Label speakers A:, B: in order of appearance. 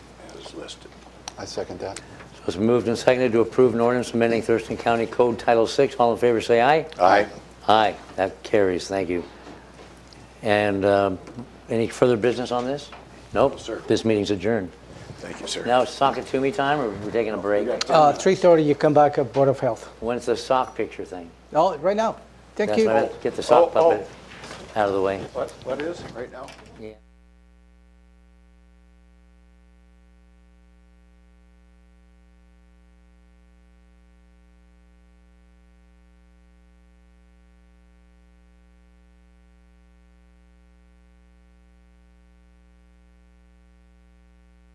A: listed.
B: I second that.
C: So it's moved and seconded to approve an ordinance amending Thurston County Code Title VI. All in favor, say aye.
B: Aye.
C: Aye, that carries, thank you. And um, any further business on this? Nope.
A: sir.
C: This meeting's adjourned.
A: Thank you, sir.
C: Now it's Sockatumi time, or we're taking a break?
D: Uh, 3:30, you come back at Board of Health.
C: When's the sock picture thing?
D: Oh, right now. Thank
C: That's
D: you.
C: not it. Get the sock
A: Oh, oh.
C: puppet out of the way.
A: What, what is, right now?
C: Yeah.